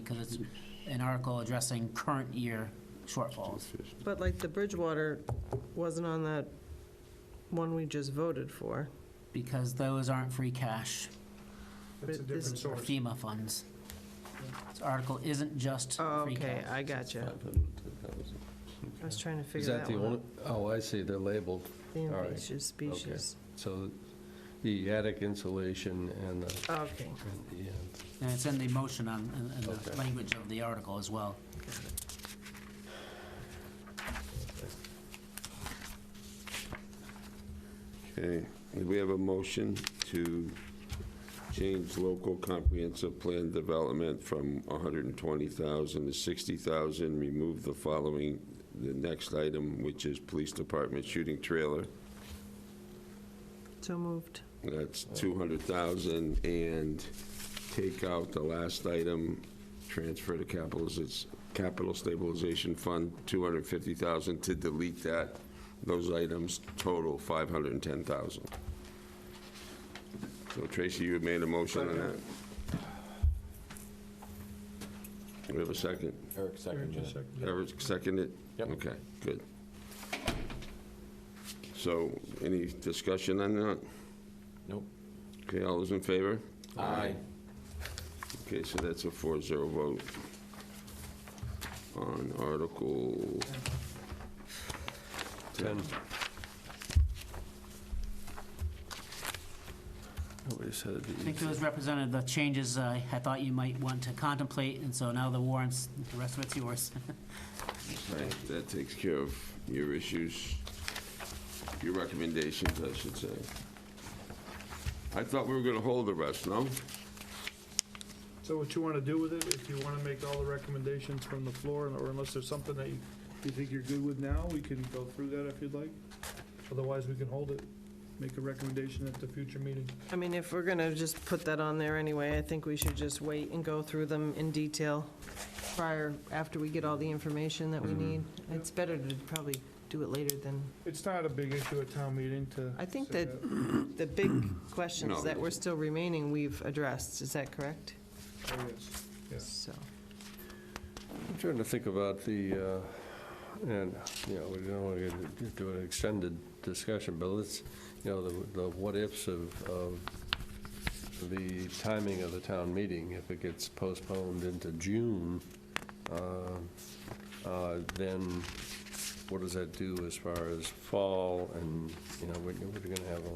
because it's an article addressing current year shortfalls. But like the Bridgewater wasn't on that one we just voted for. Because those aren't free cash, That's a But this- different or source. FEMA funds. This article isn't just Oh, free okay, cash. I got you. 510,000. I was trying to Is figure that that the one only, out. oh, I see, they're labeled. The all right, invasive species. So the attic insulation and the, Okay, and the, uh, And it's in the motion on, in- in the Okay. language of the article as well. Okay, we have a motion to change local comprehensive plan development from 120,000 to 60,000, remove the following, the next item, which is police department shooting trailer. so moved. That's 200,000, and take out the last item, transfer to capitals, it's capital stabilization fund, 250,000 to delete that. Those items total 510,000. So Tracy, you had made a motion on that. We have a second? Eric Eric seconded just it. seconded it. Eric seconded? Yep. Okay, good. So, any discussion on that? Nope. Okay, all those in favor? Aye. Okay, so that's a 4-0 vote on Article 10. nobody said I the, think those represented the changes uh, I thought you might want to contemplate, and so now the warrants, the rest of it's yours. Right, That takes care of your issues, your recommendations, I should say. I thought we were going to hold the rest, no? So what you want to do with it, if you want to make all the recommendations from the floor, or unless there's something that you you think you're good with now, we can go through that if you'd like. Otherwise, we can hold it, make a recommendation at the future meeting. I mean, if we're going to just put that on there anyway, I think we should just wait and go through them in detail prior, after we get all the information that Mm-hmm. we need. It's better to probably do it later than, It's not a big issue at town meeting to. I think say that the big No, questions that were it's- still remaining, we've addressed. Is that correct? Oh, yes. Yes. So, I'm trying to think about the, uh, and, you know, we don't want to do an extended discussion, but let's, you know, the- the what-ifs of, of the timing of the town meeting, if it gets postponed into June, uh, uh, then what does that do as far as fall and, you know, we're going to have a,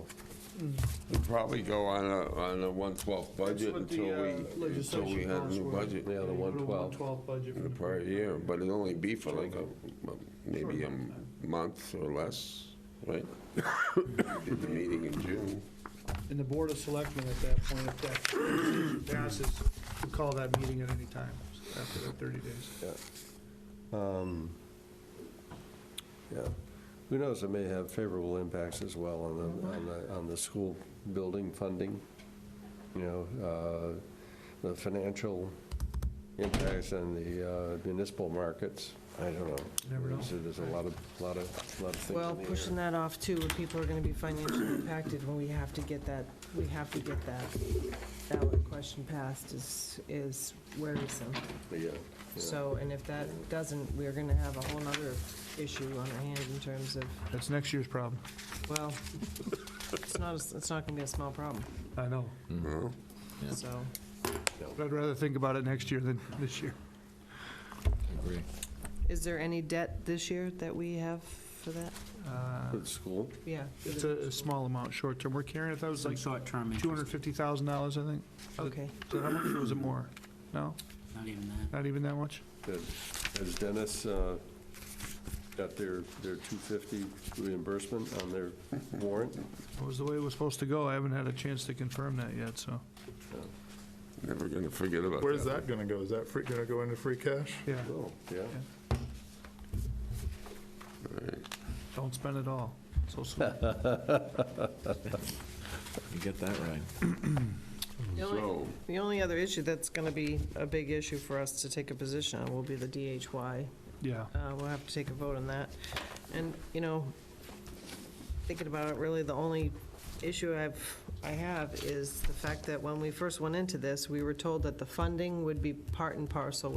We'll probably go on a, on a That's 1/12 budget what the, until uh, we, until we legislation had a calls new for. budget yeah, the You go to 112. 112 budget. in the prior year, but it'll only be for like a, maybe um, a month or less, right? At the meeting in June. And the Board of Selectmen at that point, if that passes, we call that meeting at any time after that 30 days. um, yeah. Who knows, it may have favorable impacts as well on the, on the, on the school building funding. You know, uh, the financial impacts on the uh, municipal markets, I don't know. Never know. There's- There's a lot of, lot of, lot of things in the well, air. pushing that off too, when people are going to be financially impacted when we have to get that, we have to get that ballot question passed is, is worrisome. Yeah, yeah. So, and if that doesn't, we're going to have a whole nother issue on our hands in terms of, That's next year's problem. well, it's not, a- it's not going to be a small problem, I know. Yeah. so. But I'd rather think about it next year than this year. Agree. Is there any debt this year that we have for that? Uh, Good school. Yeah. It's a a small amount, short term. We're carrying, I thought it was Some like short-term interest, $250,000, I think. Okay, So how much or was it more? No, not even that. not even that much? Good. Has Dennis uh, got their, their 250 reimbursement on their warrant? It was the way it was supposed to go. I haven't had a chance to confirm that yet, so. Never gonna forget about that. Where's that gonna go? Is that free, gonna go into free cash? Yeah, Oh, yeah. don't spend it all. So sweet. You get that right. The only- So, the only other issue that's going to be a big issue for us to take a position on will be the DHY. Yeah. Uh, We'll have to take a vote on that. And, you know, thinking about it, really, the only issue I've, I have is the fact that when we first went into this, we were told that the funding would be part and parcel with